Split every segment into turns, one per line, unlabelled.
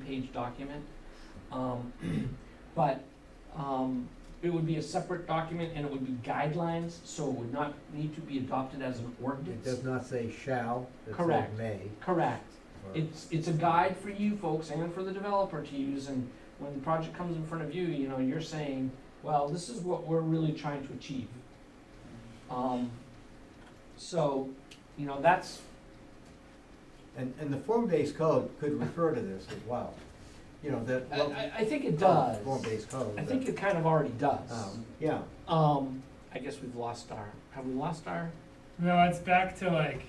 page document. Um, But um, it would be a separate document and it would be guidelines, so it would not need to be adopted as an
It
ordinance.
does not say shall, it says
Correct.
may.
Correct.
or-
It's, it's a guide for you folks and for the developer to use, and when the project comes in front of you, you know, you're saying, well, this is what we're really trying to achieve. Um, So, you know, that's,
And, and the form-based code could refer to this as well. You know, that.
I, I- I think it does.
Form-based code.
I
that-
think it kind of already does.
um, Yeah,
Um, I guess we've lost our, have we lost our?
No, it's back to like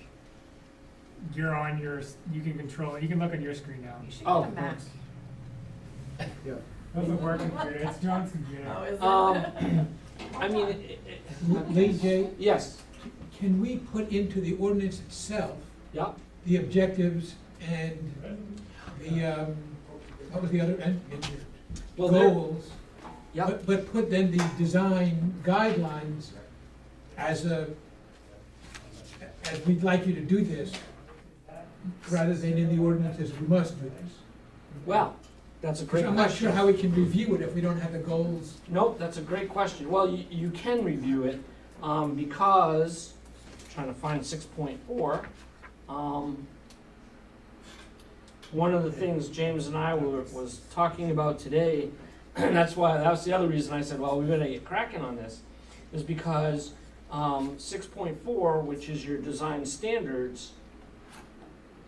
you're on your. s- You can control it. You can look on your screen now.
You should
Oh,
get a Mac.
yeah.
Doesn't work computer. It's John's computer.
is
Um, I mean, it- it-
Lee J,
yes,
can we put into the ordinance itself
yeah,
the objectives and the, um, what was the other, and, and
well, there,
goals?
yeah,
But, but put then the design guidelines as a, as we'd like you to do this, rather than in the ordinance as we must do this.
well, that's a great
I'm not sure
question.
how we can review it if we don't have the goals.
Nope, that's a great question. Well, you, you can review it, um, because, trying to find six point four, um, one of the things James and I were, was talking about today, and that's why, that was the other reason I said, well, we better get cracking on this, is because, um, six point four, which is your design standards,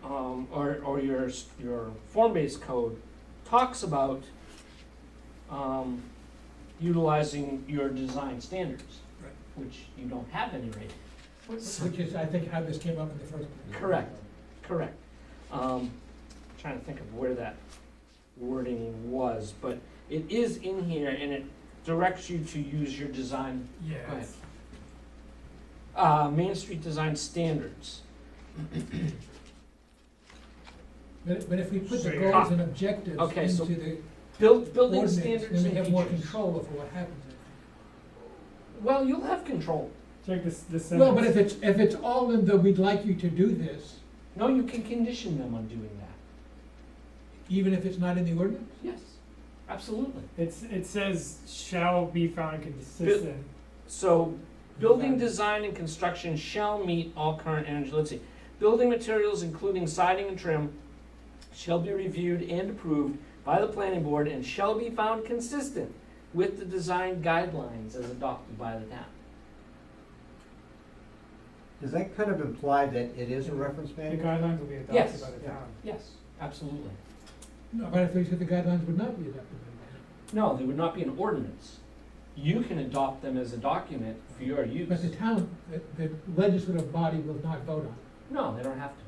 um, or, or your, s- your form-based code, talks about, um, utilizing your design standards,
Right.
which you don't have any right.
Um,
Which is, I think, how this came up in the first place.
Correct, correct. Um, trying to think of where that wording was, but it is in here and it directs you to use your design,
Yeah.
go ahead.
it's-
Uh, Main Street Design Standards.
But, but if we put the
Sure.
goals and objectives
Okay, so
into the
Build, building
ordinance,
standards
then
and
we have more
features.
control over what happens.
Well, you'll have control.
Check this. This.
Well, but
sentence.
if it's, if it's all in the, we'd like you to do this,
No, you can condition them on doing that.
even if it's not in the ordinance?
Yes, absolutely.
It's, it says shall be found consistent.
So, building
Design.
design and construction shall meet all current energy, let's see. Building materials, including siding and trim, shall be reviewed and approved by the planning board and shall be found consistent with the design guidelines as adopted by the town.
Does that kind of imply that it is a reference
The
manual?
guidelines will be adopted
Yes.
by the
Yeah.
town.
Yes, absolutely.
No, but if we said the guidelines would not be adopted by
No, they would not be an ordinance. You can adopt them as a document for your
the
use.
But the town, the- the legislative body will not vote on it.
No, they don't have to.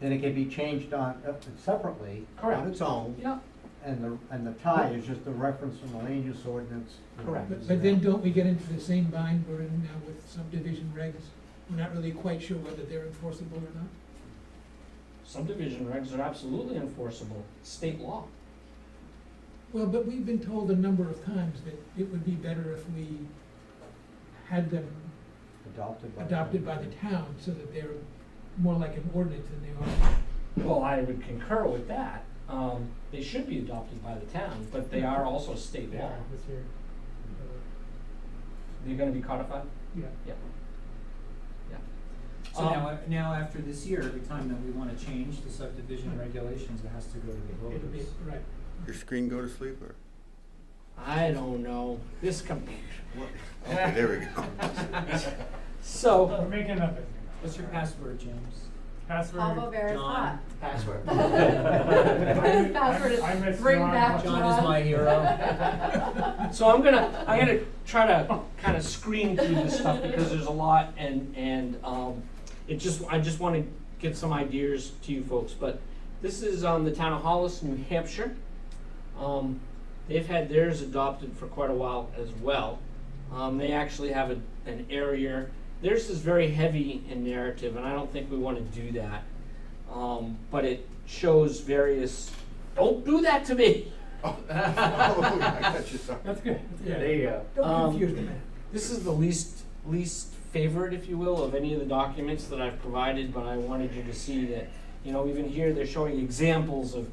And it can be changed on, uh, separately,
Correct.
on its own,
Yeah,
and the, and the tie is just the reference from the land use ordinance.
Correct.
But, but then don't we get into the same bind we're in now with subdivision regs? We're not really quite sure whether they're enforceable or not.
subdivision regs are absolutely enforceable, state law.
Well, but we've been told a number of times that it would be better if we had them
Adopted by.
adopted by the town so that they're more like an ordinance than they are.
Well, I would concur with that. Um, they should be adopted by the town, but they are also state
They
law.
are this year.
They're gonna be codified?
Yeah.
Yeah. Yeah.
So
Um,
now, now after this year, every time that we want to change the subdivision regulations, it has to go to the
It'll be,
voters.
right.
Your screen go to sleep or?
I don't know, this computer.
Okay, there we go. Oh,
We're
So,
making it up.
What's your password, James?
Password.
Pablo Bear's
John.
hot.
password.
I-
His password
I
is
miss
bring
John.
back John.
John is my hero.
So I'm gonna, I'm gonna try to kind of screen through this stuff because there's a lot and, and, um, it just, I just wanna get some ideas to you folks, but this is, um, the town of Hollis, New Hampshire. Um, they've had theirs adopted for quite a while as well. Um, they actually have a, an area, theirs is very heavy in narrative, and I don't think we wanna do that. Um, but it shows various, don't do that to me.
Oh, I got you, sorry.
That's good. That's good.
you go.
Don't
Um,
confuse the man.
This is the least, least favorite, if you will, of any of the documents that I've provided, but I wanted you to see that You know, even here, they're showing examples of